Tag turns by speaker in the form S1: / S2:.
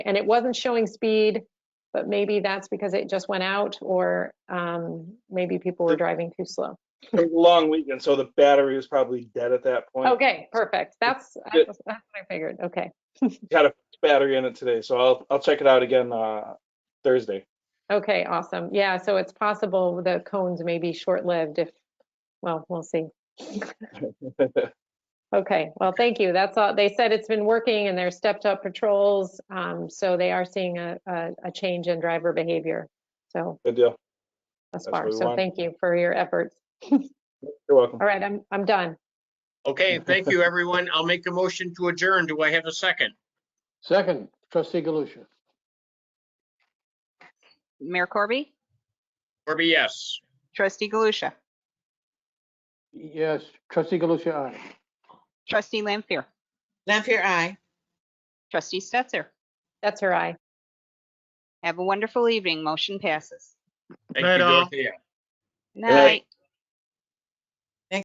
S1: and it wasn't showing speed, but maybe that's because it just went out or um, maybe people were driving too slow.
S2: It was a long weekend, so the battery was probably dead at that point.
S1: Okay, perfect. That's,
S2: Good.
S1: that's what I figured. Okay.
S2: Got a battery in it today, so I'll, I'll check it out again, uh, Thursday.
S1: Okay, awesome. Yeah, so it's possible the cones may be short-lived if, well, we'll see. Okay, well, thank you. That's all. They said it's been working and they're stepped up patrols. Um, so they are seeing a, a, a change in driver behavior. So
S2: Good deal.
S1: thus
S2: That's
S1: far.
S2: what we
S1: So
S2: want.
S1: thank you for your efforts.
S2: You're welcome.
S1: All right, I'm, I'm done.
S3: Okay, thank you, everyone. I'll make a motion to adjourn. Do I have a second?
S4: Second, trustee Galusha.
S5: Mayor Corby?
S3: Corby, yes.
S5: Trustee Galusha?
S4: Yes, trustee Galusha, aye.
S5: Trustee Lampier?
S6: Lampier, aye.
S5: Trustee Stetser?
S1: That's her eye.
S5: Have a wonderful evening. Motion passes.
S3: Thank
S6: Right
S3: you,
S6: on.
S3: Dorothea.
S2: night.
S5: Night.